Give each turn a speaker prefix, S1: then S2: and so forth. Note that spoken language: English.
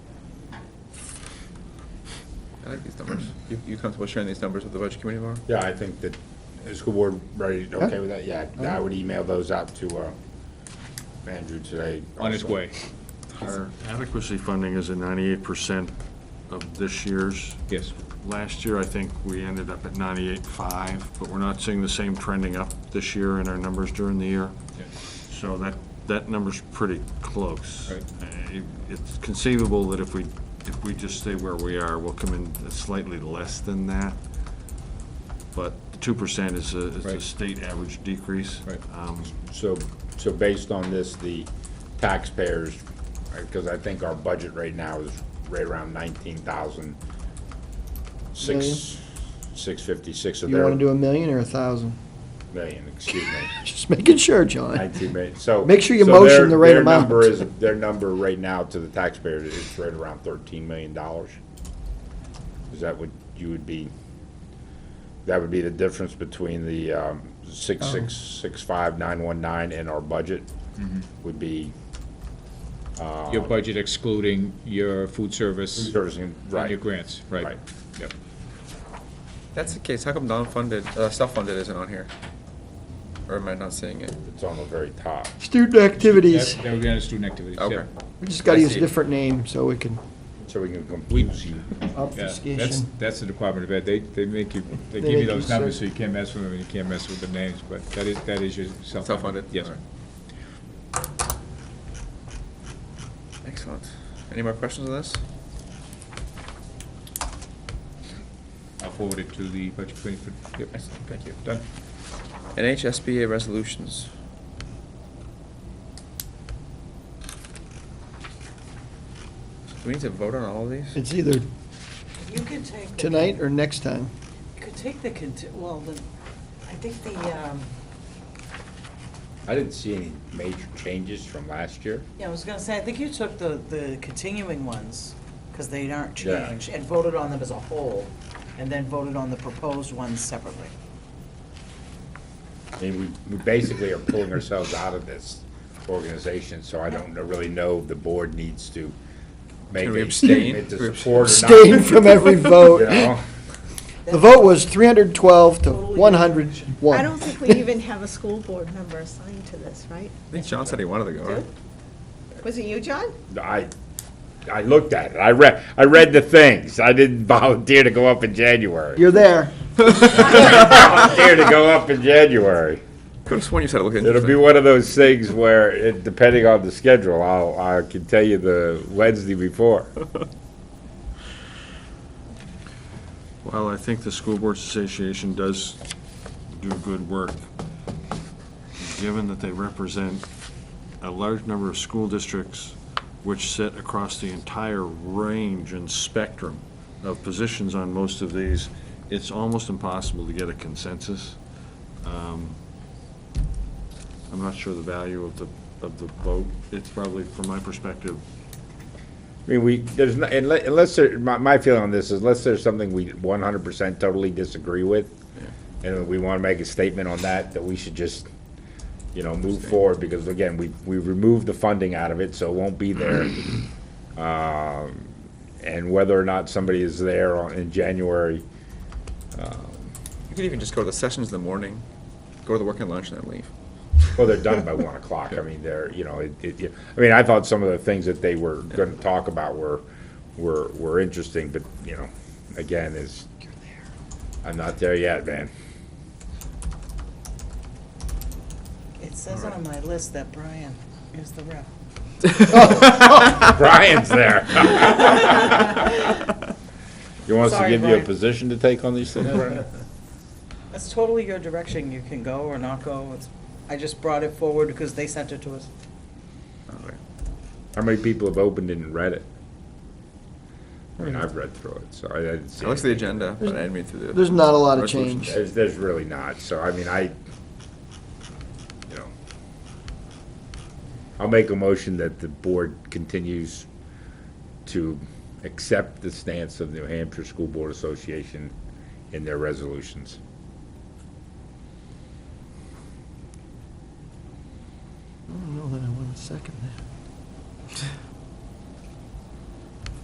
S1: I like these numbers. You, you comfortable sharing these numbers with the budget committee tomorrow?
S2: Yeah, I think that, is school board ready, okay with that? Yeah, I would email those out to uh, Andrew today.
S3: on its
S2: also.
S3: way.
S1: Or-
S4: Adequacy funding is at ninety-eight percent of this year's.
S3: Yes.
S4: Last year, I think we ended up at ninety-eight five, but we're not seeing the same trending up this year in our numbers during the year.
S3: Yeah.
S4: So that, that number's pretty close.
S3: Right.
S4: Uh, it- It's conceivable that if we, if we just stay where we are, we'll come in slightly less than that. But two percent is a, is a
S3: Right.
S4: state average decrease.
S3: Right.
S4: Um,
S2: So, so based on this, the taxpayers, because I think our budget right now is right around nineteen thousand, six, six fifty-six, so
S5: You
S2: they're,
S5: want to do a million or a thousand?
S2: million, excuse me.
S5: Just making sure, John.
S2: Nineteen million, so.
S5: Make sure you
S2: so their-
S5: motion the right
S2: Their
S5: amount.
S2: number is, their number right now to the taxpayers is right around thirteen million dollars. Is that what you would be, that would be the difference between the, um, six, six, six, five, nine, one, nine and our budget? Would be
S3: Your budget excluding your food service
S2: servicing,
S3: and your
S2: right,
S3: grants, right?
S2: Right.
S3: Yep.
S1: That's the case. How come non-funded, uh, self-funded isn't on here? Or am I not seeing it?
S2: it's on the very top.
S5: Student activities.
S3: That- That would be under student activities, yeah.
S1: Okay.
S5: We just got to
S1: I
S5: use
S1: see.
S5: a different name so we can
S2: So we can confuse you.
S3: Yeah, That's,
S5: obfuscation.
S3: that's the Department of Ed, they, they make you, they
S5: They
S3: give you
S5: make you
S3: those numbers so
S5: search.
S3: you can't mess with them, and you can't mess with the names, but that is, that is your self-funded.
S1: Self-funded?
S3: Yes.
S1: All right. Excellent. Any more questions on this?
S3: I'll forward it to the budget committee for, yep,
S1: Excellent, thank you.
S3: done.
S1: NHSBA resolutions. Do we need to vote on all of these?
S5: It's either
S6: You could take. the-
S5: tonight or next time.
S6: You could take the, conti- well, the, I think the, um,
S2: I didn't see any major changes from last year.
S6: yeah, I was gonna say, I think you took the, the continuing ones, because they aren't
S2: Yeah.
S6: changed, and voted on them as a whole, and then voted on the proposed ones separately.
S2: I mean, we, we basically are pulling ourselves out of this organization, so I don't know- really know if the board needs to make
S1: Can we
S2: a
S1: abstain?
S2: statement
S1: Can we
S2: to support or not.
S5: Abstain from every
S2: You
S5: vote.
S2: know?
S5: The vote was 312 to
S7: I don't
S5: 101.
S7: think we even have a school board member assigned to this, right?
S1: I think John said he wanted to go, right?
S7: Was it you, John?
S2: I, I looked at it, I read, I read the things, I didn't volunteer to go up in January.
S5: You're there.
S2: Volunteer to go up in January.
S1: Could have sworn you said it looked
S2: It'll be
S1: interesting.
S2: one of those things where, it- depending on the schedule, I'll, I can tell you the Wednesday before.
S4: Well, I think the School Boards Association does do good work, given that they represent a large number of school districts which sit across the entire range and spectrum of positions on most of these, it's almost impossible to get a consensus. Um, I'm not sure the value of the, of the vote. It's probably, from my perspective,
S2: I mean, we, there's, no- unle- unless, there- my, my feeling on this is unless there's something we one hundred percent totally disagree with, and we wanna make a statement on that, that we should just, you know, move forward, because again, we, we removed the funding out of it, so it won't be there. Um, And whether or not somebody is there on- in January,
S1: You could even just go to the sessions in the morning, go to the work and lunch, and then leave.
S2: well, they're done by one o'clock, I mean, they're, you know, it, it, I mean, I thought some of the things that they were gonna talk about were, were, were interesting, but, you know, again, is, I'm not there yet, man.
S6: It says on my list that Brian is the rep.
S2: Brian's there. You want us to
S6: Sorry,
S2: give you a
S6: Brian.
S2: position to take on these things?
S6: That's totally your direction, you can go or not go, it's, I just brought it forward because they sent it to us.
S1: All right.
S2: How many people have opened it and read it? I mean, I've read through it, so I I didn't see.
S1: I looked at the
S2: anything.
S1: agenda, but I didn't read through the.
S5: There's not a lot of
S1: resolutions.
S5: change.
S2: There's, there's really not, so I mean, I, you know. I'll make a motion that the board continues to accept the stance of New Hampshire School Board Association in their resolutions.
S5: I don't know that I want to second that.